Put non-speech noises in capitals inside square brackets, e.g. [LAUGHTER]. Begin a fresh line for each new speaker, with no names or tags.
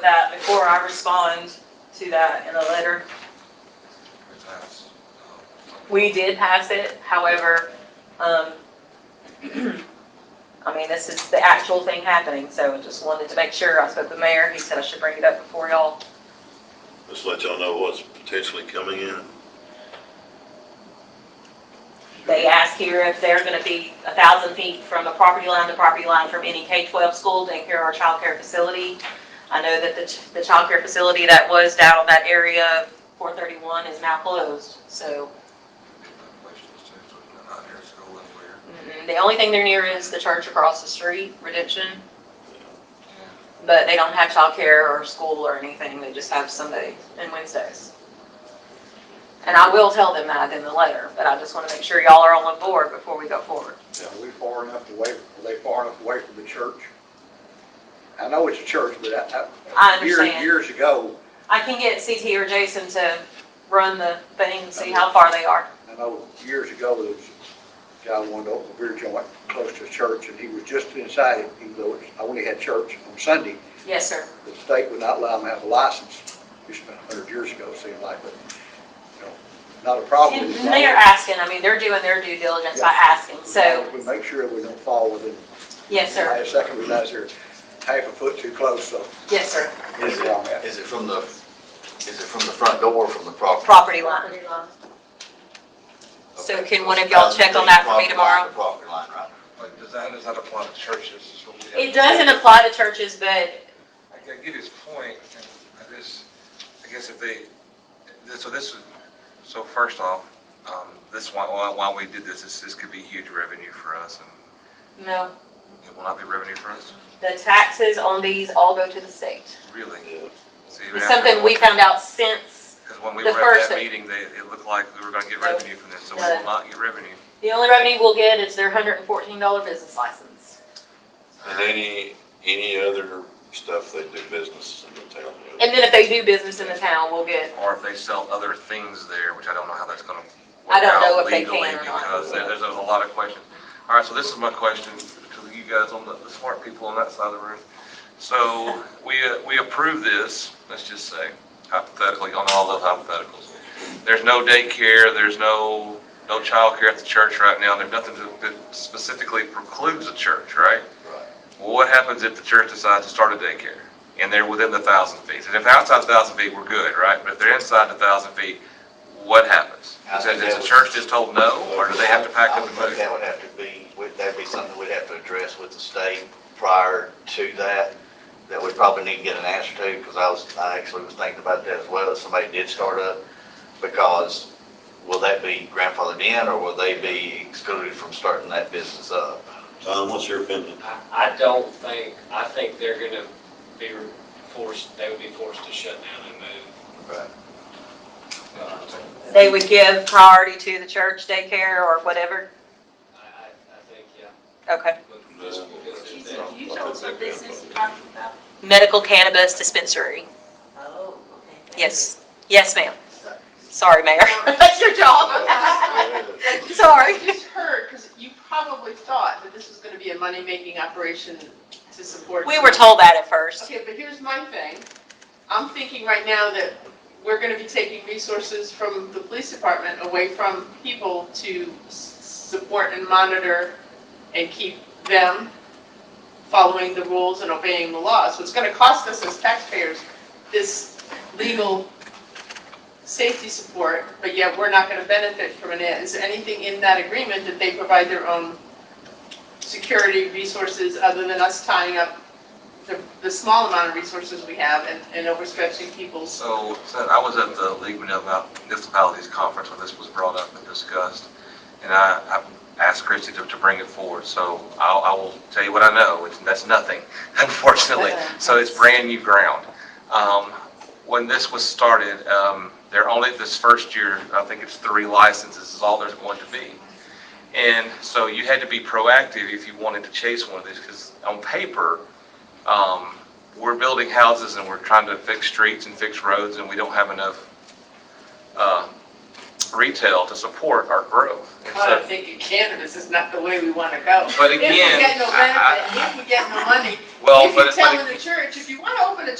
that before I respond to that in a letter.
We passed, um,
We did pass it, however, um, [CLEARS THROAT] I mean, this is the actual thing happening, so I just wanted to make sure. I spoke with the mayor, he said I should bring it up before y'all.
Just let y'all know what's potentially coming in.
They asked here if they're gonna be a thousand feet from the property line to property line from any K-12 school, daycare or childcare facility. I know that the, ch- the childcare facility that was down on that area of 431 is now closed, so
questions too, so we're not near school anywhere.
mm, the only thing they're near is the church across the street, Redemption. But they don't have childcare or school or anything, they just have Sundays and Wednesdays. And I will tell them that in the letter, but I just want to make sure y'all are all on board before we go forward.
Are we far enough away, are they far enough away from the church? I know it's a church, but I,
I
I, years,
understand.
years ago,
I can get CT or Jason to run the thing and see how far they are.
I know years ago, there was a guy who wanted to open a beer joint close to the church, and he was just inside it, even though it's- I only had church on Sunday.
Yes, sir.
The state would not allow him to have a license, just about a hundred years ago, it seemed like, but, you know, not a problem.
And they're asking, I mean, they're doing their due diligence by asking, so,
We make sure we don't fall within,
yes, sir.
last second, we guys are half a foot too close, so.
Yes, sir.
Is
where I'm at.
it, is it from the, is it from the front door or from the property?
Property line. So can one of y'all check on that for me tomorrow?
The property line, right?
But does that, does that apply to churches? is what we have-
It doesn't apply to churches, but
I I get his point, and I just, I guess if they, this- so this, would- so first off, um, this, why, why why we did this, this, this could be huge revenue for us, and
no,
it will not be revenue for us,
the taxes on these all go to the state.
really.
Yeah.
So even
It's
after-
something we found out since,
Because when we
the
were at
first-
that meeting, they, it looked like we were gonna get
No.
revenue from this, so we will not get revenue.
the only revenue we'll get is their hundred and fourteen dollar business license.
And any, any other stuff they do business in the town. with.
And then if they do business in the town, we'll get,
Or if they sell other things there, which I don't know how that's gonna
I
work
don't know
out
if they
legally
can or not.
because there- there's, there's a lot of questions. All right, so this is my question to you guys on the, the smart people on that side of the room. So we, uh, we approve this, let's just say hypothetically, on all the hypotheticals. There's no daycare, there's no, no childcare at the church right now. There's nothing that- that specifically precludes a church, right?
Right.
Well, what happens if the church decides to start a daycare and they're within the thousand feet? And if they're outside the thousand feet, we're good, right? But if they're inside the thousand feet, what happens? Is it- is the church just told no, or do they have to pack
I
up
would
and
think
move?
that would have to be, would- that'd be something we'd have to address with the state prior to that, that we probably need to get an answer to, because I was, I actually was thinking about that as well, if somebody did start up, because will that be grandfathered in, or will they be excluded from starting that business up?
Tom, what's your opinion?
I, I don't think, I think they're gonna be forced, they would be forced to shut down and move.
Right.
Uh,
they would give priority to the church daycare or whatever.
I, I, I think, yeah.
Okay.
but just because
She
it's
said,
that-
you told some business you're talking about?
Medical cannabis dispensary.
Oh, okay. thank you.
Yes. Yes, ma'am. Sorry, Mayor. [LAUGHS] That's your
[LAUGHS]
job.
[LAUGHS]
[LAUGHS] Sorry.
I just heard, because you probably thought that this was going to be a money-making operation to support.
We were told that at first.
Okay, but here's my thing. I'm thinking right now that we're going to be taking resources from the police department away from people to s- support and monitor and keep them following the rules and obeying the laws. So it's going to cost us as taxpayers this legal safety support, but yet we're not going to benefit from it. Is there anything in that agreement that they provide their own security resources other than us tying up the, the small amount of resources we have and, and overstretching people's.
So, so I was at the League of Municipalities Conference when this was brought up and discussed, and I, I asked Christie to, to bring it forward, so I'll, I will tell you what I know, it's, that's nothing, [LAUGHS] unfortunately. So it's brand new ground. Um, when this was started, um, they're only, this first year, I think it's three licenses is all there's going to be. And so you had to be proactive if you wanted to chase one of these, because on paper, um, we're building houses and we're trying to fix streets and fix roads, and we don't have enough, uh, retail to support our growth. And
I
so-
don't think in cannabis is not the way we want to go.
But
If we
again,
get no
I- I-
benefit, if we get no money,
Well,
if
but
you're
it's like.
telling the church, if you want to open a